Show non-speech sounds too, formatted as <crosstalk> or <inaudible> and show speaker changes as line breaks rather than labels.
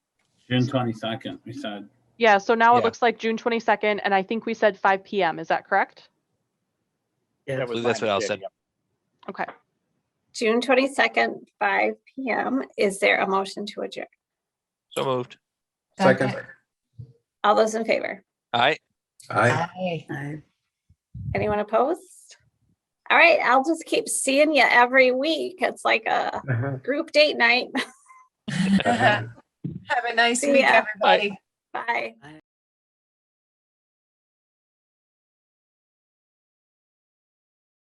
June twenty-second, we said.
Yeah, so now it
Yeah.
looks like June 22nd, and I think we said 5 PM. Is that correct?
That was
That's
my
what Al
mistake,
Okay.
June twenty-second, five PM. Is there a motion to adjourn?
So moved.
Second.
All those in favor?
All right.
Aye.
Aye.
Anyone opposed? All right, I'll just keep seeing you every week. It's like a group date night. <laughs>
<laughs> Have a nice
See
week,
ya.
everybody.
Bye.
Bye.